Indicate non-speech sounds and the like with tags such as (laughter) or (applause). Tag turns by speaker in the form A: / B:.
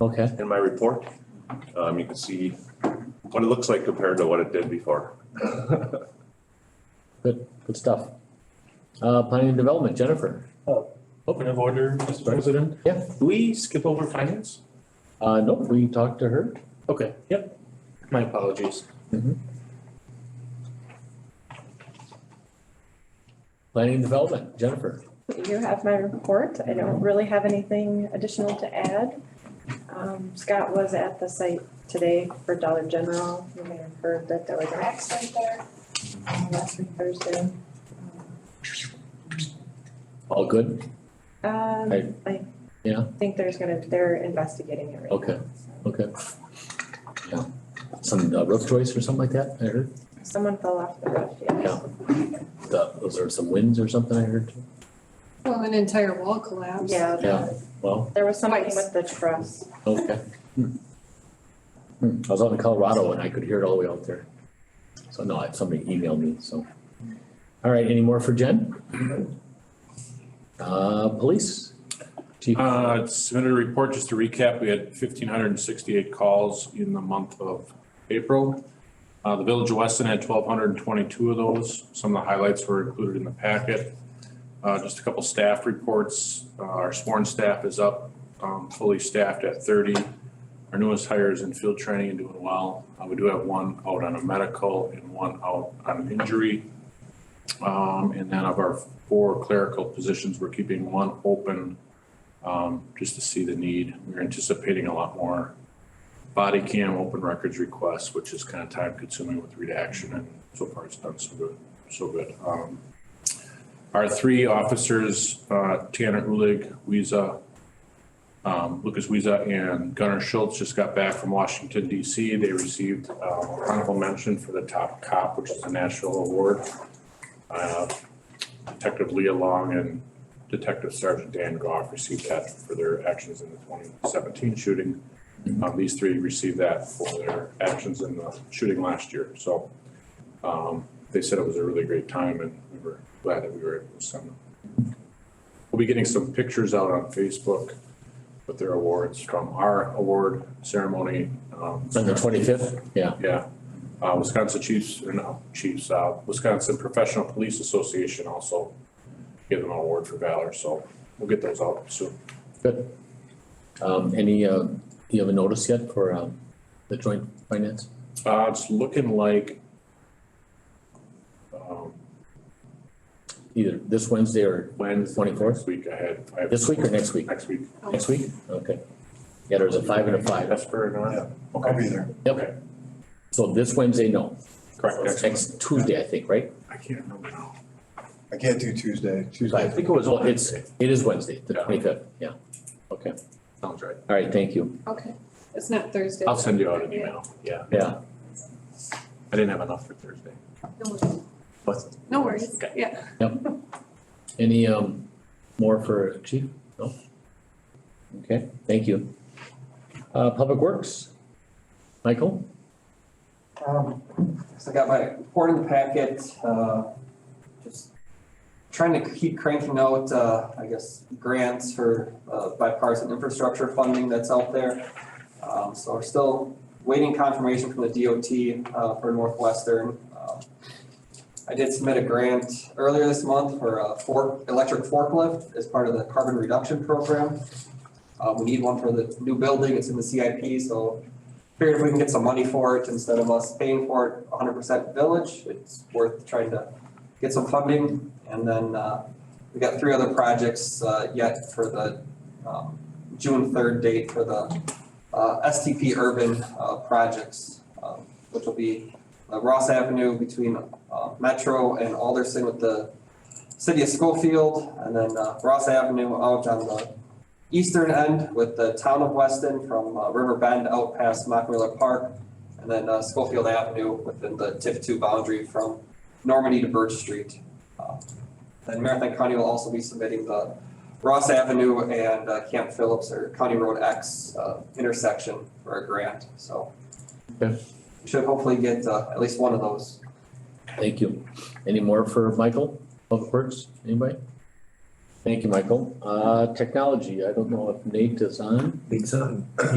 A: Okay,
B: in my report. Um, you can see what it looks like compared to what it did before.
A: (laughs) good, good stuff. Uh, planning and development, Jennifer.
C: Open of order, Mr.
A: Right.
C: President.
A: Yeah.
C: Do we skip over finance?
A: Uh, no, we talked to her.
C: Okay, yep. My apologies.
A: Planning and development, Jennifer.
D: You have my report. I don't really have anything additional to add. Um, Scott was at the site today for Dollar General. You may have heard that there was an accident there um, last week Thursday.
A: All good?
D: Um,
A: Right.
D: I
A: Yeah.
D: think there's gonna, they're investigating it right now.
A: Okay.
D: so.
A: Okay. Yeah. Some uh, roof choice or something like that, I heard.
D: Someone fell off the roof,
A: Yeah.
D: yeah.
A: The, was there some winds or something I heard?
E: Well, an entire wall collapsed.
D: Yeah,
A: Yeah. Well,
D: there was something
E: Twice.
D: with the truss.
A: okay. Hmm. Hmm, I was out in Colorado and I could hear it all the way out there. So no, I- somebody emailed me, so. All right, any more for Jen? Uh, police? Chief?
F: Uh, submitted a report, just to recap, we had fifteen hundred and sixty-eight calls in the month of April. Uh, the Village of Weston had twelve hundred and twenty-two of those. Some of the highlights were included in the packet. Uh, just a couple staff reports. Uh, our sworn staff is up, um, fully staffed at thirty. Our newest hire is in field training and doing well. Uh, we do have one out on a medical and one out on an injury. Um, and then of our four clerical positions, we're keeping one open um, just to see the need. We're anticipating a lot more body cam open records requests, which is kind of time consuming with redaction and so far it's done so good, so good. Um, Our three officers, uh, Tanner Ulig, Weeza, um, Lucas Weeza and Gunnar Schultz just got back from Washington DC. They received, uh, honorable mention for the top cop, which is a national award. Uh, Detective Leah Long and Detective Sergeant Dan Goff received that for their actions in the twenty seventeen shooting.
A: Mm-hmm.
F: Um, these three received that for their actions in the shooting last year, so. Um, they said it was a really great time and we were glad that we were able to send them. We'll be getting some pictures out on Facebook with their awards from our award ceremony. um, On
A: On the twenty-fifth? Yeah,
F: yeah. Uh, Wisconsin Chiefs, or no, Chiefs, uh, Wisconsin Professional Police Association also gave them an award for valor, so we'll get those out soon.
A: good. Um, any, uh, do you have a notice yet for, um, the joint finance?
F: Uh, it's looking like um,
A: Either this Wednesday or
F: Wednesday.
A: 24th?
F: Next week I had. I have-
A: This week or next week?
F: Next week.
A: Next week? Okay. Yeah, there's a five and a five.
F: Vesper and all that.
C: I'll be there.
A: So this Wednesday, no.
F: Correct, next week.
A: Next Tuesday, I think, right?
F: I can't remember now.
G: I can't do Tuesday,
A: Right.
G: Tuesday.
F: think it was
A: Well, it's, it is Wednesday, the
F: Yeah.
A: twenty-fifth, yeah. Okay,
F: Sounds right.
A: all right, thank you.
E: Okay, it's not Thursday.
F: I'll send you out an email. Yeah,
A: Yeah,
F: I didn't have enough for Thursday.
E: No worries.
F: What?
E: No worries, yeah.
A: any, um, more for chief? No? Okay, thank you. Uh, Public Works, Michael?
H: Um, so I got my report in the packet, uh, just trying to keep cranking out, uh, I guess, grants for, uh, bipartisan infrastructure funding that's out there. Um, so we're still waiting confirmation from the DOT, uh, for Northwestern. Um, I did submit a grant earlier this month for a fork, electric forklift as part of the carbon reduction program. Uh, we need one for the new building, it's in the CIP, so figured if we can get some money for it, instead of us paying for it hundred percent village, it's worth trying to get some funding. And then, uh, we got three other projects, uh, yet for the, um, June third date for the, uh, STP urban, uh, projects, um, which will be uh, Ross Avenue between, uh, Metro and Alderson with the city of Schofield, and then, uh, Ross Avenue out on the eastern end with the town of Weston from uh, River Bend out past Mockmiller Park. And then uh, Schofield Avenue within the TIF two boundary from Normandy to Birch Street. Uh, Then Marathon County will also be submitting the Ross Avenue and uh, Camp Phillips or County Road X uh, intersection for a grant, so.
A: Okay.
H: we Should hopefully get uh, at least one of those.
A: Thank you. Any more for Michael, Public Works, anybody? Thank you, Michael. Uh, technology, I don't know if Nate is on.
G: Big time.